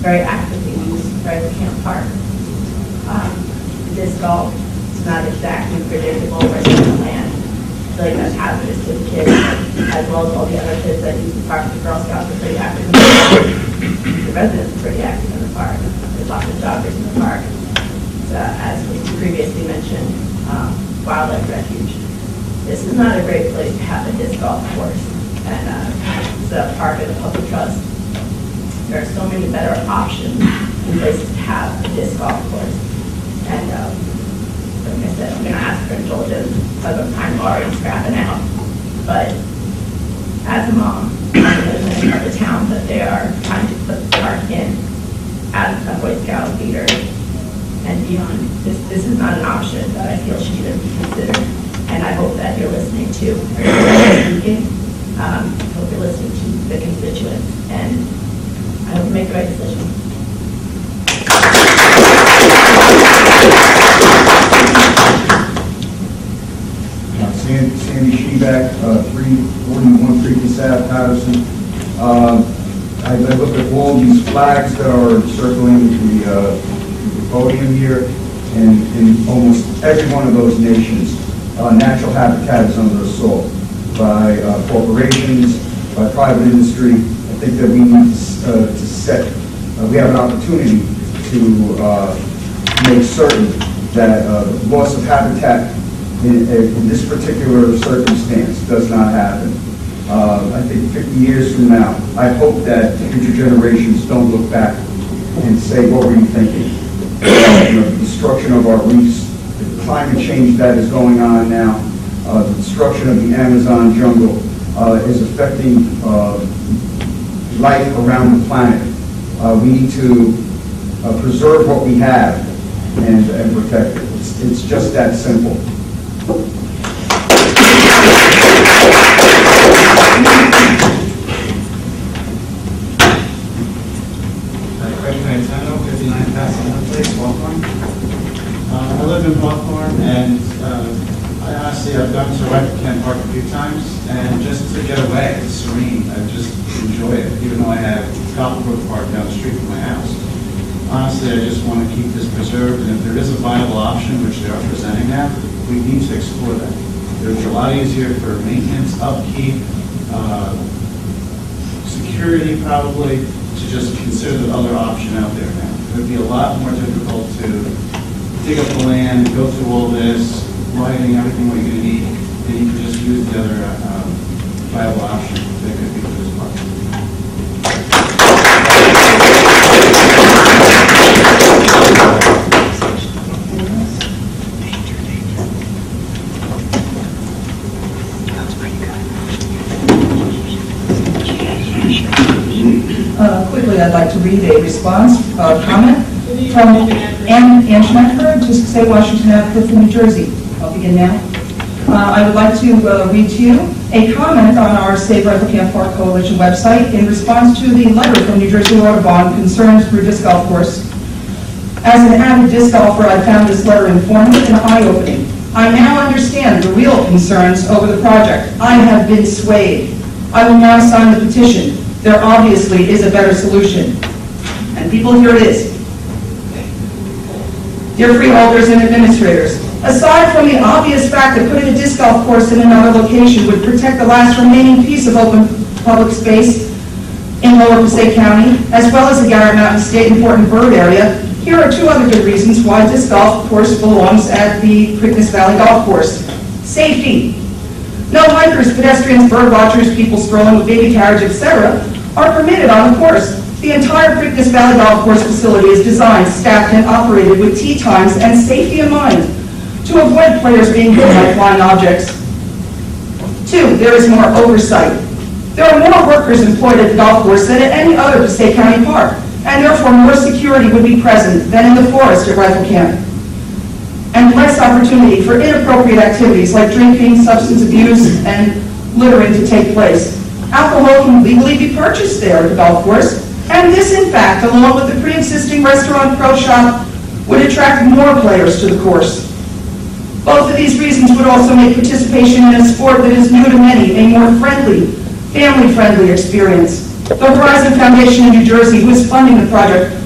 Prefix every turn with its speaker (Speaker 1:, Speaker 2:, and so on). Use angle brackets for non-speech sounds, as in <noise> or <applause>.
Speaker 1: very actively used for the Camp Park. Um, This golf is not exactly predictable where it's going to land. It's Really that's hazardous to the kids, as well as all the other kids that use the park. The Girl Scouts are pretty active. in the park. The residents are pretty active in the park. There's lots of joggers in the park. It's, uh, As we previously mentioned, um, wildlife refuge. This is not a great place to have a disc golf course. And uh, it's a part of the public trust there are so many better options and places to have a disc golf course. And, um, like I said, I'm gonna ask for indulgence because I'm kind of already scrapping out. But as a mom, I live in the town that they are trying to put the park in as a Boy Scout leader and beyond. This, this is not an option that I feel should even be considered. And I hope that you're listening to, speaking, um, I hope you're listening to the constituents and I hope you make the right decision.
Speaker 2: Uh, San- Sandy Sheback, uh, 341 Freeport Ave, Patterson. Uh, I I look at all these flags that are circling the uh, the podium here, and in almost every one of those nations, uh, natural habitat is under assault by uh, corporations, by private industry. I think that we need to s- uh, to set, uh, we have an opportunity to uh, make certain that uh, loss of habitat in in this particular circumstance does not happen. Uh, I think 50 years from now, I hope that future generations don't look back and say, what were you thinking? <coughs> You know, The Destruction of our reefs, the climate change that is going on now, uh, the destruction of the Amazon jungle uh, is affecting uh, life around the planet. Uh, We need to uh, preserve what we have and and protect it. It's- It's just that simple.
Speaker 3: Craig Frantano, 59 Pasadena Place, Hawthorne. Uh, I live in Hawthorne, and uh, I honestly, I've gone to Rec Kent Park a few times, and just to get away, it's serene, I just enjoy it, even though I have Copperbrook Park down the street from my house. Honestly, I just want to keep this preserved, and if there is a viable option, which they are presenting now, we need to explore that. It's a lot easier for maintenance, upkeep, uh, security probably, to just consider the other option out there now. It would be a lot more difficult to dig up the land, go through all this, lighting, everything what you're gonna need, and you can just use the other um, viable option that could be for this park.
Speaker 4: Uh, Quickly, I'd like to read a response, uh, comment from Ann Ann Schmecker, just say Washington Ave, Clifton, New Jersey. I'll begin now. Uh, I would like to uh, read to you a comment on our Save Rifle Camp Park Coalition website in response to the letter from New Jersey Audubon concerns Brew Disc Golf Course. As an avid disc golfer, I found this letter informative and eye-opening. I now understand the real concerns over the project. I have been swayed. I will now sign the petition. There obviously is a better solution. And people, here it is. Dear freeholders and administrators, aside from the obvious fact that putting a disc golf course in another location would protect the last remaining piece of open public space in Lower Passaic County, as well as the Garrett Mountain State Important Bird Area, here are two other good reasons why disc golf course belongs at the Preakness Valley Golf Course. Safety. No hikers, pedestrians, bird watchers, people strolling with baby carriage, etc., are permitted on the course. The entire Preakness Valley Golf Course facility is designed, staffed, and operated with tee times and safety in mind to avoid players being hit by flying objects. Two, there is more oversight. There are more workers employed at the golf course than at any other Passaic County park, and therefore more security would be present than in the forest at Rifle Camp. And less opportunity for inappropriate activities like drinking, substance abuse, and littering to take place. Alcohol can legally be purchased there at the golf course, and this in fact, along with the pre-existing restaurant pro shop, would attract more players to the course. Both of these reasons would also make participation in a sport that is new to many a more friendly, family-friendly experience. The Horizon Foundation in New Jersey, who is funding the project,